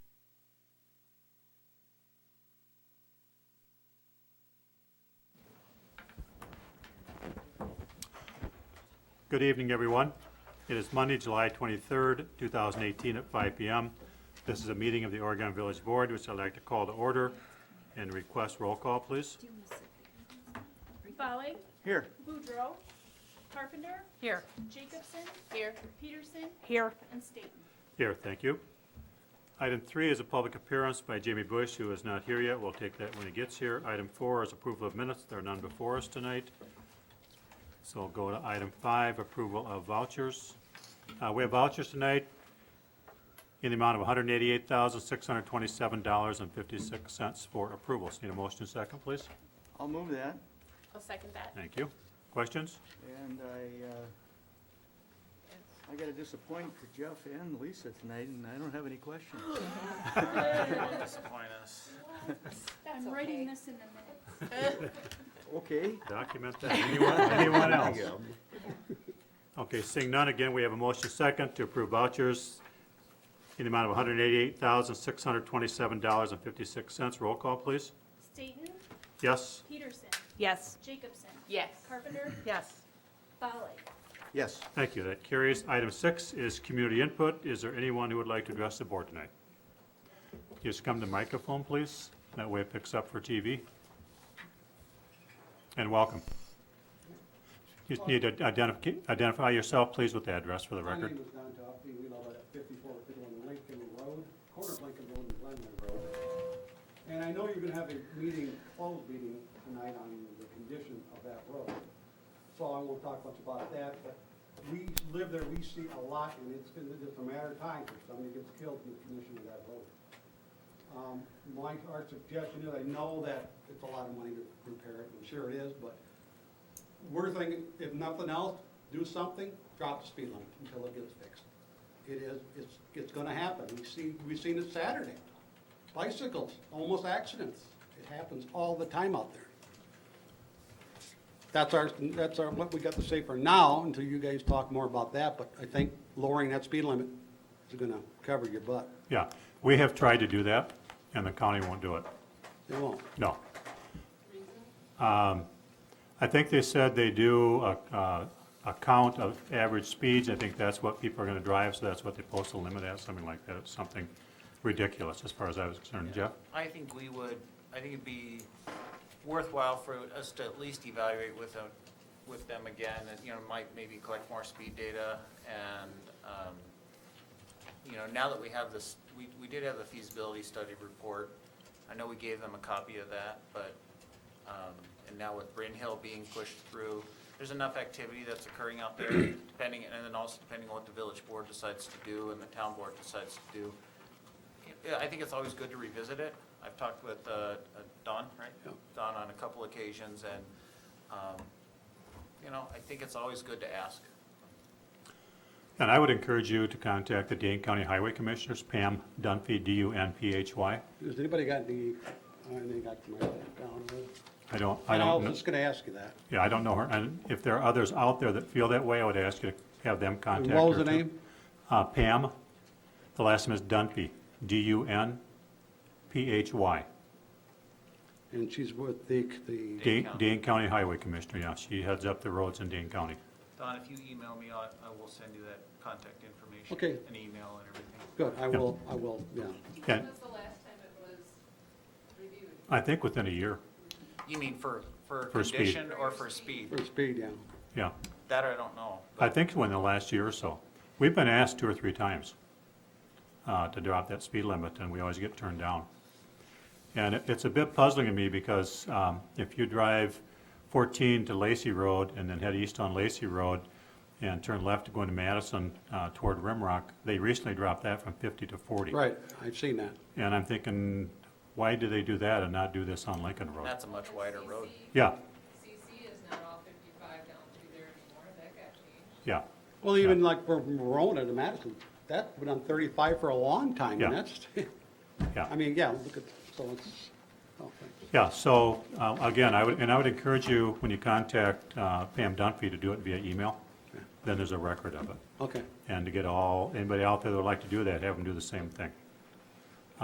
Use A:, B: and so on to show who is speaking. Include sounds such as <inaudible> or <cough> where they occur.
A: Good evening, everyone. It is Monday, July 23rd, 2018, at 5 p.m. This is a meeting of the Oregon Village Board, which I'd like to call to order and request roll call, please.
B: Folly,
A: Here.
B: Boudreaux, Carpenter,
C: Here.
B: Jacobson. Here. Peterson
C: Here.
B: and Staton.
A: Here, thank you. Item three is a public appearance by Jamie Bush, who is not here yet. We'll take that when he gets here. Item four is approval of minutes. There are none before us tonight. So we'll go to item five, approval of vouchers. Uh, We have vouchers tonight in the amount of $188,627.56 for approvals. Need a motion second, please?
D: I'll move that,
B: I'll second that.
A: Thank you. Questions?
D: and I, uh, I gotta disappoint Jeff and Lisa tonight, and I don't have any questions.
E: Disappoint us.
B: I'm writing this in a
D: <gasps> Okay,
A: Document that. Anyone, anyone else? Okay, seeing none, again, we have a motion second to approve vouchers in the amount of $188,627.56. Roll call, please.
B: minute. Staton,
A: Yes?
B: Peterson,
C: Yes.
B: Jacobson.
C: Yes.
B: Carpenter,
C: Yes.
B: Folly.
D: yes,
A: Thank you. That carries. Item six is community input. Is there anyone who would like to address the board tonight? Just come to microphone, please. That way it picks up for TV. And welcome. You just need to identif- identify yourself, please, with the address for the
F: My
A: record.
F: name is Don Toffey, we live at fifty-four fifty-one Lincoln Road, corner of Lincoln Road and Glenwood Road. And I know you're gonna have a meeting, closed meeting tonight on the condition of that road. So I won't talk much about that, but we live there, we see a lot, and it's, gonna- it's a matter of time if somebody gets killed in the condition of that road. Um, my, our suggestion is, I know that it's a lot of money to repair it, and sure it is, but we're thinking, if nothing else, do something, drop the speed limit until it gets fixed. It is, it's, it's gonna happen. We see, we've seen it Saturday. Bicycles, almost accidents. It happens all the time out there. That's our, that's our, what we got to say for now, until you guys talk more about that, but I think lowering that speed limit is gonna cover your butt.
A: Yeah, we have tried to do that, and the county won't do it.
F: It won't.
A: No. Um, I think they said they do a, a- a count of average speeds. I think that's what people are gonna drive, so that's what they post a limit at, something like that. It's something ridiculous, as far as I was concerned. Jeff?
E: I think we would, I think it'd be worthwhile for us to at least evaluate with them, with them again, and, you know, might maybe collect more speed data, and, um, you know, now that we have this, we, we did have the feasibility study report, I know we gave them a copy of that, but, um, and now with Bryn Hill being pushed through, there's enough activity that's occurring out there, depending, and then also depending on what the village board decides to do and the town board decides to do, yeah, I think it's always good to revisit it. I've talked with uh, uh, Don, right? Don on a couple occasions, and, um, you know, I think it's always good to ask.
A: And I would encourage you to contact the Dane County Highway Commissioners, Pam Dunphy, D-U-N-P-H-Y.
F: Has anybody got any, I think I can write that down.
A: I don't, I
F: And I
A: don't,
F: was
A: kn-
F: just gonna ask you that.
A: yeah, I don't know her. And if there are others out there that feel that way, I would ask you to have them contact her.
F: And what was the
A: too.
F: name?
A: Uh, Pam, the last name is Dunphy, D-U-N-P-H-Y,
F: And she's with the, the.
A: Dane,
E: County.
A: Dane County Highway Commissioner, yeah, she heads up the roads in Dane County.
E: Don, if you email me, I I will send you that contact information.
F: Okay.
E: An email and everything.
F: Good, I will, I will, yeah.
A: And
G: When was the last time it was reviewed?
A: I think within a year,
E: You mean for, for
A: For speed.
E: condition or for speed?
F: For speed, yeah.
A: yeah,
E: That I don't know.
A: I think within the last year or so. We've been asked two or three times uh, to drop that speed limit, and we always get turned down. And it- it's a bit puzzling to me because um, if you drive 14 to Lacey Road and then head east on Lacey Road and turn left to go into Madison uh, toward Rimrock, they recently dropped that from 50 to 40.
F: Right, I've seen that.
A: And I'm thinking, why do they do that and not do this on Lincoln Road?
E: That's a much wider road.
A: Yeah,
G: CC is not all 55 down through there anymore, that got changed.
A: yeah,
F: Well, even like from Verona to Madison, that went on thirty-five for a long time,
A: Yeah.
F: and that's, <laughs> I
A: yeah,
F: mean, yeah, look at, so it's, oh, thanks.
A: yeah. So, um, again, I would, and I would encourage you, when you contact uh, Pam Dunphy, to do it via email. Then there's a record of it.
F: okay,
A: And to get all, anybody out there that would like to do that, have them do the same thing.